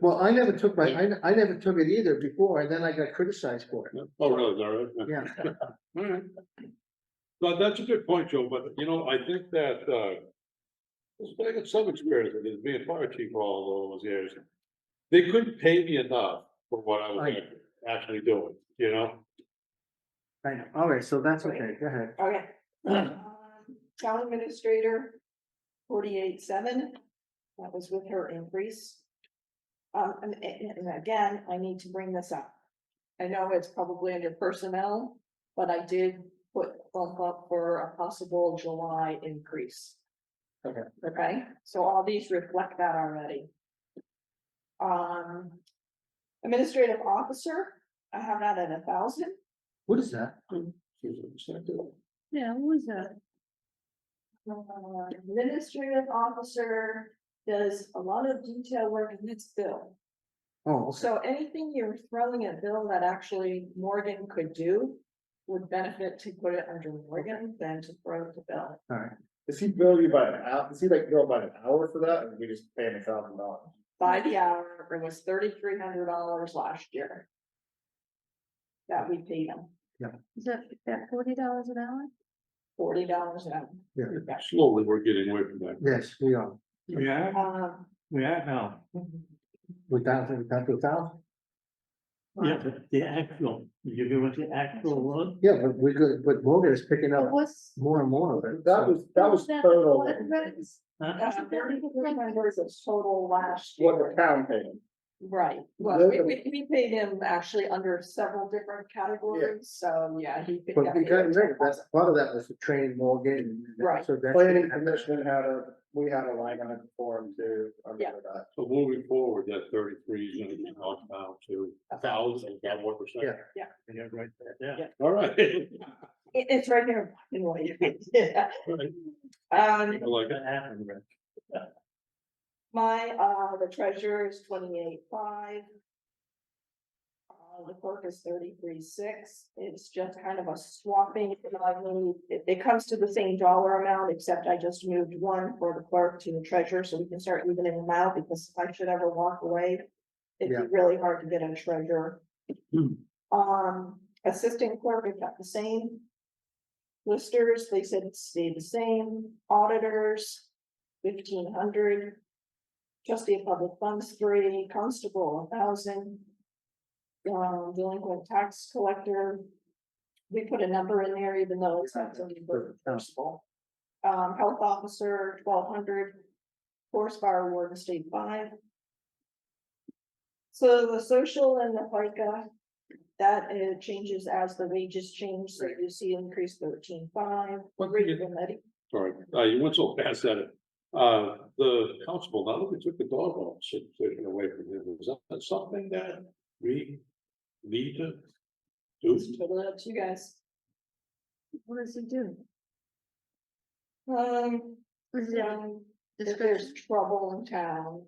Well, I never took my, I, I never took it either before, and then I got criticized for it. Oh, really, is that right? Yeah. Alright. No, that's a good point, Joe, but you know, I think that, uh. this guy got some experience with this, being fire chief for all those years. They couldn't pay me enough for what I was Right. act- actually doing, you know? I know, all right, so that's okay, go ahead. Okay. Um, Town administrator, forty-eight, seven, that was with her increase. Um, and, and and again, I need to bring this up. I know it's probably under personnel, but I did put bump up for a possible July increase. Okay. Okay, so all these reflect that already. Um, administrative officer, I have that at a thousand. What is that? Yeah, what was that? Uh, Administrative officer does a lot of detail work and it's Bill. Oh, okay. So anything you're throwing at Bill that actually Morgan could do would benefit to put it under Morgan than to throw it to Bill. all right. Does he bill you by an hour? Does he like bill by an hour for that? Or we just pay him a thousand dollars? By the hour, it was thirty-three hundred dollars last year. That we paid him Is that, that forty dollars an hour? forty dollars an hour. Slowly, we're getting away from that. Yes, we are. Yeah, Um, yeah, no, We got, we got to thousand. yeah, but the actual, you give us the actual one, Yeah, but we're good, but Morgan is picking up What's? more and more of it. That so- was, that was total. huh? that's thirty-three hundred was total last year. What the town paid. Right, well, we, we, we paid him actually under several different categories, so yeah, he. could But we definitely- got, that's, part of that was to train Morgan. and Right. So that's. Planning commission had a, we had a line on it for him too. I remember that. So moving forward, that thirty-three is gonna be knocked down to a thousand, is that what we're saying? Yeah. Yeah, right there, yeah. All right. It, it's right here. in what you did. All right, Um, I like it. That happened, right? my, uh, the treasurer is twenty-eight five. Uh, the clerk is thirty-three six, it's just kind of a swapping, I mean, it, it comes to the same dollar amount, except I just moved one for the clerk to the treasurer, so we can start evening them out, because if I should ever walk away. It'd Yeah. be really hard to get a treasurer. Hmm. Um, assistant clerk, we've got the same. Listers, they said it stayed the same, auditors, fifteen hundred. Trustee of public funds, three, constable, thousand. Um, delinquent tax collector. We put a number in there even though it's not something reimbursable. Um, health officer, twelve hundred. Forest fire warden, state five. So the social and the FICA, that uh, changes as the wages change, so you see increase thirteen five. What did you- Sorry, uh, you went so fast at it. Uh, the constable, now that we took the dog off, should taken away from him, is that something that we need to do? To you guys. What does he do? Um, Is it a um, if there's description? trouble in town,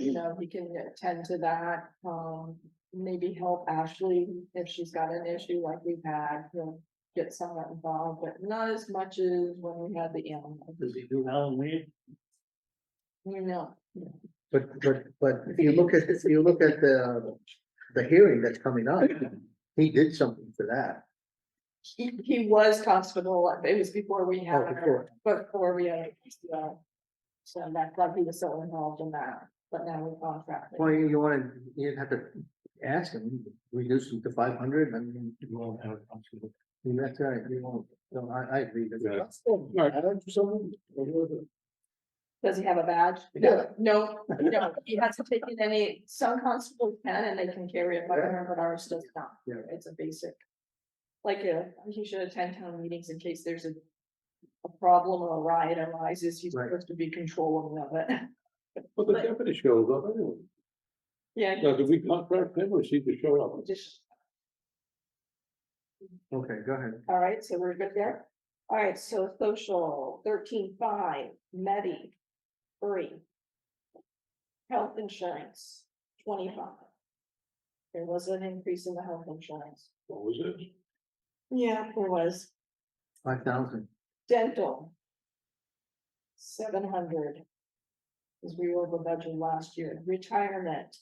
you know, we can attend to that, um, maybe help Ashley if she's got an issue like we've had, he'll get someone involved, but not as much as when we had the animal, Does he do Halloween? you know. But, but, but if you look at, if you look at the, the hearing that's coming up, he did something for that. He, he was constable, it was before we had, Oh, her, before. before we had. uh, So that's why he was so involved in that, but now we contract. Well, you, you wanna, you'd have to ask him, reduce him to five hundred, I mean, You won't have a constable. that's right, you won't, no, I, I agree. with that. That's still bad or something. Does he have a badge? Yeah. No, no, he hasn't taken any, some constables can and they can carry a firearm, but ours does not. Yeah. It's a basic. Like, uh, he should attend town meetings in case there's a. A problem or a riot arises, he's Right. supposed to be controlling of it. But the deputy shows up anyway. Yeah. Now, do we contract him or is he to show up? Just, Okay, go ahead. all right, so we're good there. All right, so social thirteen five, Medi, three. Health insurance, twenty five. There was an increase in the health insurance. What was it? Yeah, there was. Five thousand. Dental. Seven hundred. As we were over budget last year, retirement,